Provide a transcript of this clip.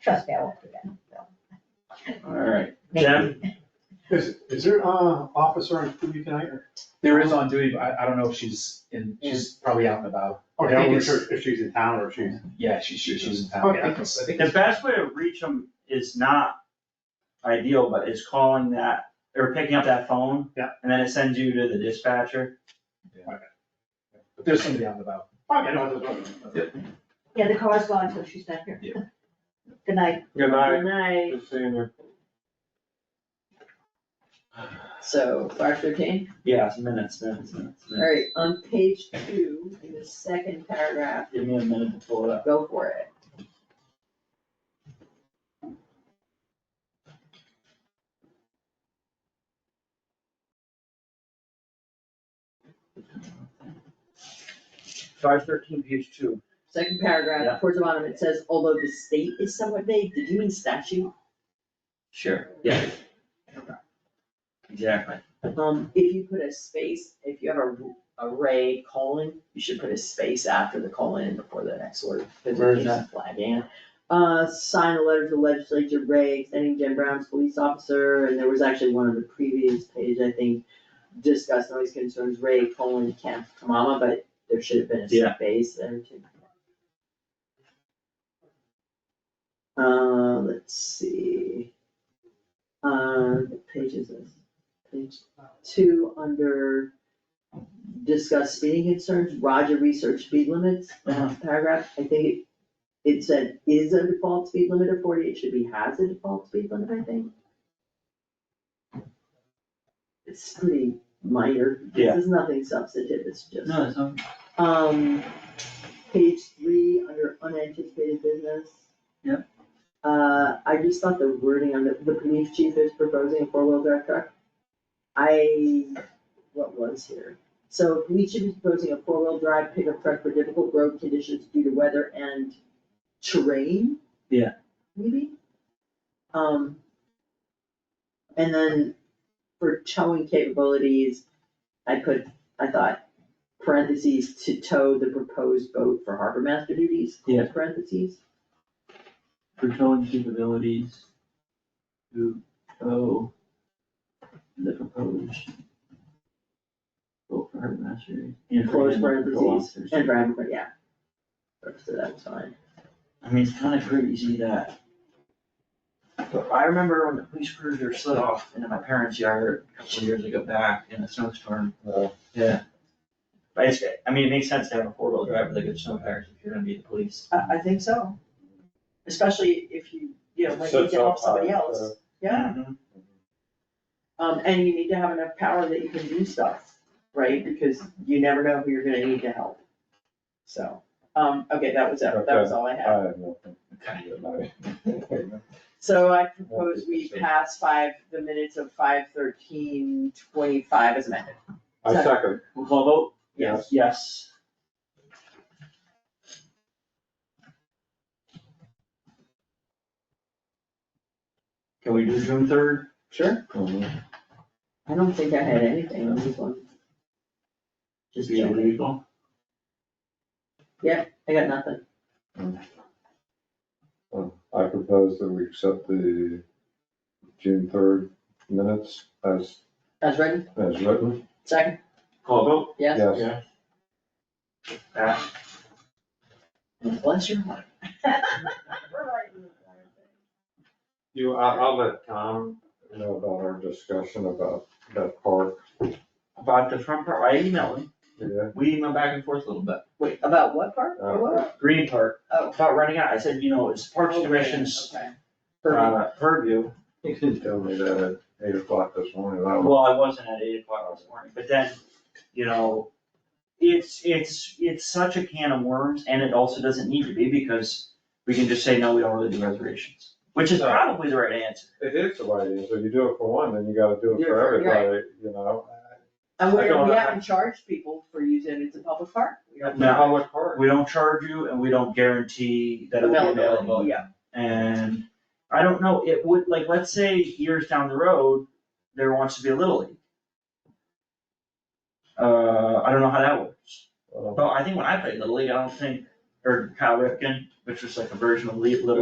Trust me, I won't do that. All right. Maybe. Jen? Is, is there, uh, officer on duty tonight or? There is on duty, but I, I don't know if she's in, she's probably out and about. Okay, I'm not Yes. sure if she's in town or if she's. Yeah, she, she, she's in town. Yeah, I can- I think The best way to reach them is not ideal, but is calling that, or picking up that phone. Yeah. And then it sends you to the dispatcher. But there's somebody out and about. Okay, no, that's okay. Yeah, the car's gone, so she's not here. Yeah. Good night. Good night, Night, good seeing you. so five thirteen, Yeah, it's minutes, minutes, minutes, minutes. alright, on page two, in the second paragraph, Give me a minute to pull it up. go for it. Five thirteen, page two. Second Yeah. paragraph, towards the bottom, it says, although the state is somewhat vague, did you mean statute? Sure, yeah. Exactly. Um, if you put a space, if you have a array colon, you should put a space after the colon and before the next word. 'cause it Where is keeps Flagging. it. Uh, sign a letter to legislature, Ray, extending Jim Brown's police officer, and there was actually one on the previous page, I think, discuss noise concerns, Ray, colon, Kemp, Kamama, but there should have been Yeah. a space there too. Uh, let's see. Uh, what page is this? Page two, under discuss speeding concerns, Roger research speed limits, Uh, Uh-huh. paragraph, I think it, it said is a default speed limit of forty, it should be has a default speed limit, I think. It's pretty minor, Yeah. this is nothing substantive, it's just. No, it's not. Um, page three, under unanticipated business. Yep. Uh, I just thought the wording on the, the police chief is proposing a four-wheel drive truck. I, what was here? So police chief is proposing a four-wheel drive pickup truck for difficult road conditions due to weather and terrain? Yeah. Maybe? Um. And then for towing capabilities, I put, I thought, parentheses, to tow the proposed boat for harbor master duties, close parentheses. For towing capabilities to tow the proposed. Vote for her mastery. And for Close him, parentheses. parole officers. And Brian, but yeah. So that was fine. I mean, it's kind of crazy that. But I remember when the police cruiser slid off into my parents' yard a couple of years ago back in a snowstorm. Wow. Yeah. But it's, I mean, it makes sense to have a four-wheel drive with a good snow tires if you're gonna be the police. I, I think so. Especially if you, you know, when you Sets get up off somebody high, else, so- yeah, um, and you need to have enough power that you can do stuff, right? Because you never know who you're gonna need to help. So, um, okay, that was, it. that was all I had. I have nothing. Good night. So I propose we pass five, the minutes of five thirteen twenty-five as amended. I second, We'll call vote? Yes. Yes. Can we do June third? Sure. I don't think I had anything on this one. Just checking. I got nothing. I propose that we accept the June third minutes as, That's written, as written. second, Call vote? yes? Yes, Bless your heart. you, I, I'll let Tom know about our discussion about that park, About the front part, I emailed him, yeah. we emailed back and forth a little bit. Wait, about what part? Uh, What? Green Park, Oh. about running out, I said, you know, it's Parks and Recreation's Okay. uh, purview. He told me that at eight o'clock this morning, I was Well, I wasn't at eight o'clock this morning, but then, you know, it's, it's, it's such a can of worms, and it also doesn't need to be, because we can just say, no, we don't really do reservations, which is probably the right answer. it is the way it is, if you do it for one, then you gotta do it Do for it for- right. everybody, you know? And I we, don't we know. haven't charged people for using it, it's a public park. We don't- No. Public park. We don't charge you, and we don't guarantee that it'll be available. Yeah, And I don't know, it would, like, let's say years down the road, there wants to be a Little League. Uh, I don't know how that works. Well, Well, I think when I played Little League, I don't think, or Kyle Ripken, which was like a version of Lee- Little